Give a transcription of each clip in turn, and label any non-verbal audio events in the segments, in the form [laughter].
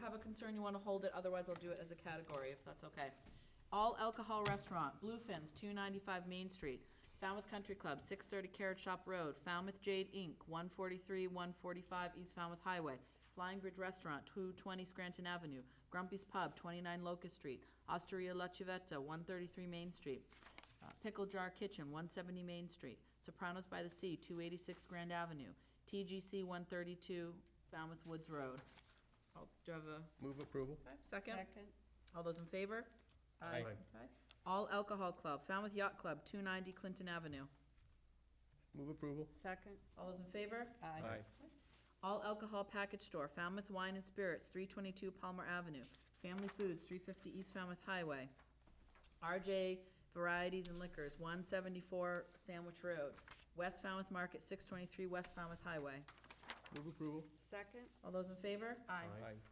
have a concern, you wanna hold it, otherwise I'll do it as a category, if that's okay. All alcohol restaurant, Bluefin's, two ninety-five Main Street, Falmouth Country Club, six thirty Carrot Shop Road, Falmouth Jade Inc., one forty-three, one forty-five East Falmouth Highway, Flying Bridge Restaurant, two twenty Scranton Avenue, Grumpy's Pub, twenty-nine Locust Street, Osteria La Civetta, one thirty-three Main Street, uh, Pickle Jar Kitchen, one seventy Main Street, Sopranos by the Sea, two eighty-six Grand Avenue, TGC one thirty-two Falmouth Woods Road. I'll- Oh, Do I have a Move approval? second? All those in favor? Aye. Aye. Okay. All Alcohol Club, Falmouth Yacht Club, two ninety Clinton Avenue. Move approval? Second? All those in favor? All Alcohol Package Store, Falmouth Wine and Spirits, three twenty-two Palmer Avenue, Family Foods, three fifty East Falmouth Highway, RJ Varieties and Liquors, one seventy-four Sandwich Road, West Falmouth Market, six twenty-three West Falmouth Highway. Move approval? Second? All those in favor?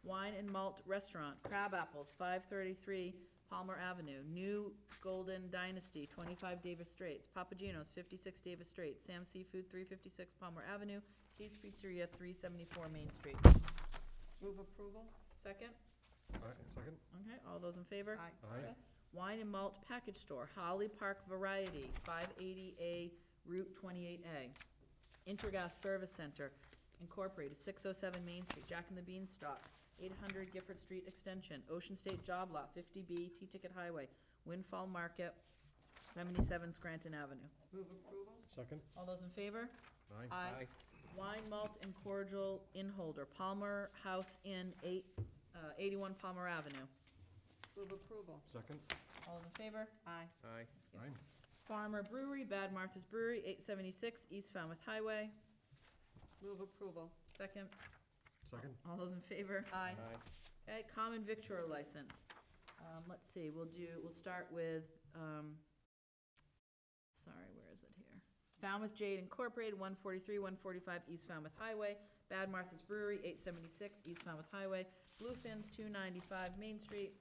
Wine and Malt Restaurant, Crab Apples, five thirty-three Palmer Avenue, New Golden Dynasty, twenty-five Davis Straits, Papagenos, fifty-six Davis Straits, Sam Seafood, three fifty-six Palmer Avenue, Steve's Pizzeria, three seventy-four Main Street. Move approval? Second? Aye, second? Okay, all those in favor? Aye. Aye. Wine and Malt Package Store, Holly Park Variety, five eighty A, Route twenty-eight A. Intergas Service Center Incorporated, six oh seven Main Street, Jack and the Beanstalk, eight hundred Gifford Street Extension, Ocean State Job Lot, fifty B, T-Ticket Highway, Windfall Market, seventy-seven Scranton Avenue. Move approval? Second? All those in favor? Aye. Aye. Wine, malt, and cordial in holder, Palmer House Inn, eight, uh, eighty-one Palmer Avenue. Move approval? Second? All those in favor? Aye. Aye. Aye. Farmer Brewery, Bad Martha's Brewery, eight seventy-six East Falmouth Highway. Move approval? Second, Second? all those in favor? Aye. Okay, common victular license. Um, let's see, we'll do, we'll start with, um, sorry, where is it here? Falmouth Jade Incorporated, one forty-three, one forty-five East Falmouth Highway. Bad Martha's Brewery, eight seventy-six East Falmouth Highway. Bluefin's, two ninety-five Main Street.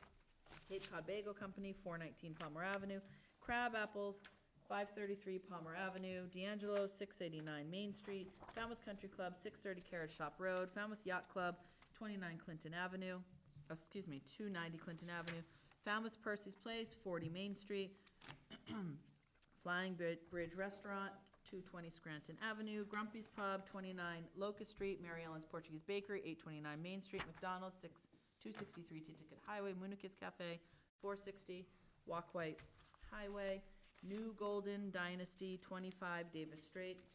Cape Cod Bagel Company, four nineteen Palmer Avenue. Crab Apples, five thirty-three Palmer Avenue. D'Angelo's, six eighty-nine Main Street. Falmouth Country Club, six thirty Carrot Shop Road. Falmouth Yacht Club, twenty-nine Clinton Avenue, uh, excuse me, two ninety Clinton Avenue. Falmouth Percy's Place, forty Main Street. [clears throat] Flying Bri- Bridge Restaurant, two twenty Scranton Avenue. Grumpy's Pub, twenty-nine Locust Street. Mary Ellen's Portuguese Bakery, eight twenty-nine Main Street. McDonald's, six, two sixty-three T-Ticket Highway. Munakis Cafe, four sixty Walkway Highway. New Golden Dynasty, twenty-five Davis Straits.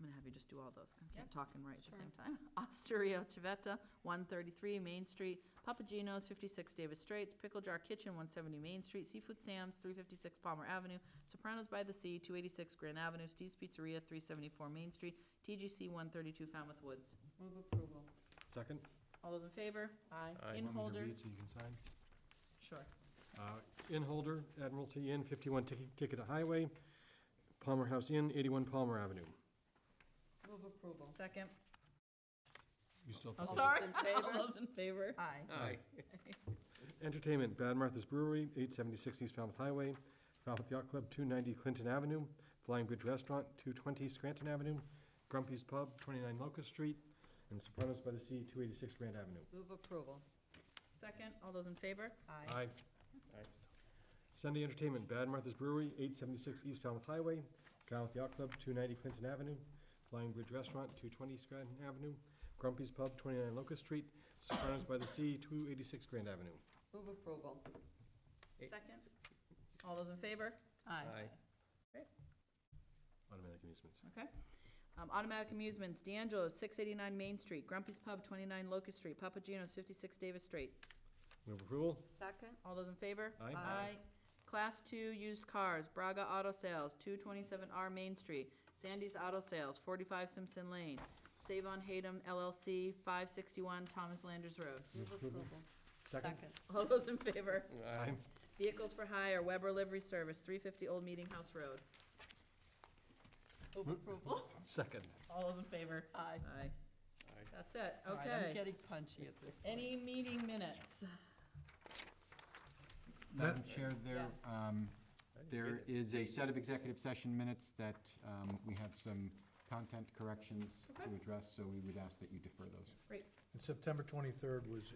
I'm gonna have you just do all those, 'cause I Yeah. can't talk and write at the Sure. same time. [laughs] Osteria Civetta, one thirty-three Main Street, Papagino's, fifty-six Davis Straits, Pickle Jar Kitchen, one seventy Main Street, Seafood Sam's, three fifty-six Palmer Avenue, Sopranos by the Sea, two eighty-six Grand Avenue, Steve's Pizzeria, three seventy-four Main Street, TGC, one thirty-two Falmouth Woods. Move approval? Second? All those in favor? Aye. Aye. In Want me to holder. read so you can sign? Sure. Uh, In holder, Admiralty Inn, fifty-one Tick- Ticket Highway, Palmer House Inn, eighty-one Palmer Avenue. Move approval? Second. You still have Oh, to- All those sorry. [laughs] in favor? All those in favor? Aye. Aye. Entertainment, Bad Martha's Brewery, eight seventy-six East Falmouth Highway, Falmouth Yacht Club, two ninety Clinton Avenue, Flying Bridge Restaurant, two twenty Scranton Avenue, Grumpy's Pub, twenty-nine Locust Street, and Sopranos by the Sea, two eighty-six Grand Avenue. Move approval? Second, all those in favor? Aye. Aye. Sunday Entertainment, Bad Martha's Brewery, eight seventy-six East Falmouth Highway, Falmouth Yacht Club, two ninety Clinton Avenue, Flying Bridge Restaurant, two twenty Scranton Avenue, Grumpy's Pub, twenty-nine Locust Street, Sopranos by the Sea, two eighty-six Grand Avenue. Move approval? Eight. Second. All those in favor? Aye. Automatic amusements. Okay. Um, Automatic Amusements, D'Angelo's, six eighty-nine Main Street, Grumpy's Pub, twenty-nine Locust Street, Papagino's, fifty-six Davis Straits. Move approval? Second? All those in favor? Aye. Aye. Class two used cars, Braga Auto Sales, two twenty-seven R Main Street, Sandy's Auto Sales, forty-five Simpson Lane, Save on Hatem LLC, five sixty-one Thomas Landers Road. [laughs] Move approval? Second? Second? All those in favor? Aye. Vehicles for Hire, Weber Livery Service, three fifty Old Meeting House Road. Move approval? Second. All those in favor? Aye. Aye. That's it, All right, I'm okay. getting punchy at this point. Any meeting minutes? Madam Chair, there, Yes. um, there is a set of executive session minutes that um, we have some content corrections to Okay. address, so we would ask that you defer those. Great. And September 23rd was